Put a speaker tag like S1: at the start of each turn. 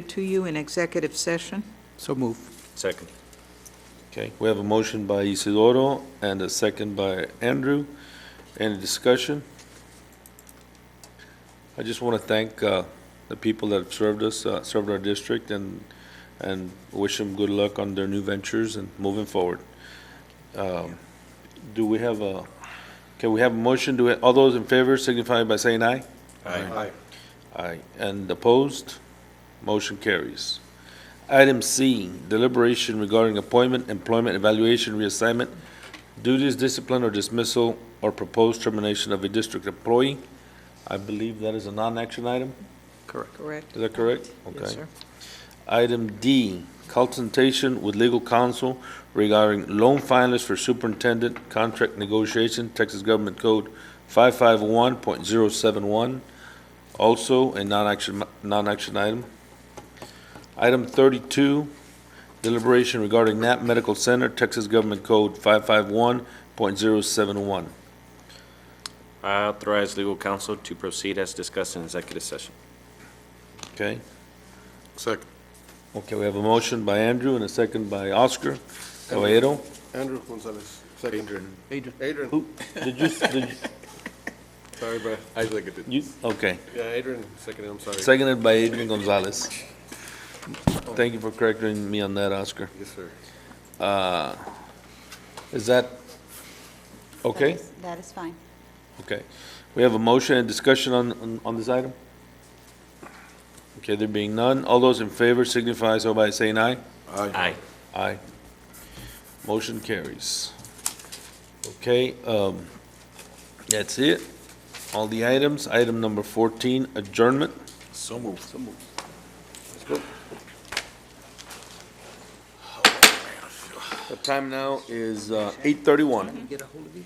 S1: to you in executive session.
S2: So move.
S3: Second.
S4: Okay, we have a motion by Isidoro and a second by Andrew. Any discussion? I just want to thank uh, the people that have served us, uh, served our district, and, and wish them good luck on their new ventures and moving forward. Um, Do we have a, can we have a motion? Do, we- all those in favor signify by saying aye?
S3: Aye.
S4: Aye. And opposed? Motion carries. Item C, deliberation regarding appointment, employment evaluation, reassignment, duties, discipline, or dismissal, or proposed termination of a district employee. I believe that is a non-action item.
S2: Correct.
S1: Correct?
S4: Is that correct?
S1: Yes,
S4: Okay.
S1: sir.
S4: Item D, consultation with legal counsel regarding loan finalists for superintendent contract negotiation, Texas Government Code 551.071, also a non-action, non-action item. Item 32, deliberation regarding Knapp Medical Center, Texas Government Code 551.071.
S3: I authorize legal counsel to proceed as discussed in executive session.
S4: Okay?
S5: Second.
S4: Okay, we have a motion by Andrew and a second by Oscar Caballero.
S5: Andrew Gonzalez. Second.
S2: Adrian.
S5: Adrian.
S4: Who, did you, did you-
S5: Sorry, bro. I seconded.
S4: you, okay.
S5: Yeah, Adrian seconded, I'm sorry.
S4: Seconded by Adrian Gonzalez. Thank you for correcting me on that, Oscar.
S5: Yes, sir.
S4: Uh, Is that okay?
S6: That is- That is fine.
S4: Okay. We have a motion and discussion on, on- on this item? Okay, there being none, all those in favor signify so by saying aye.
S3: Aye.
S4: Aye. Motion carries. Okay, um, that's it. All the items. Item number fourteen, adjournment.
S3: So moved.
S4: The time now is uh, eight thirty-one.
S2: Get a hold of you.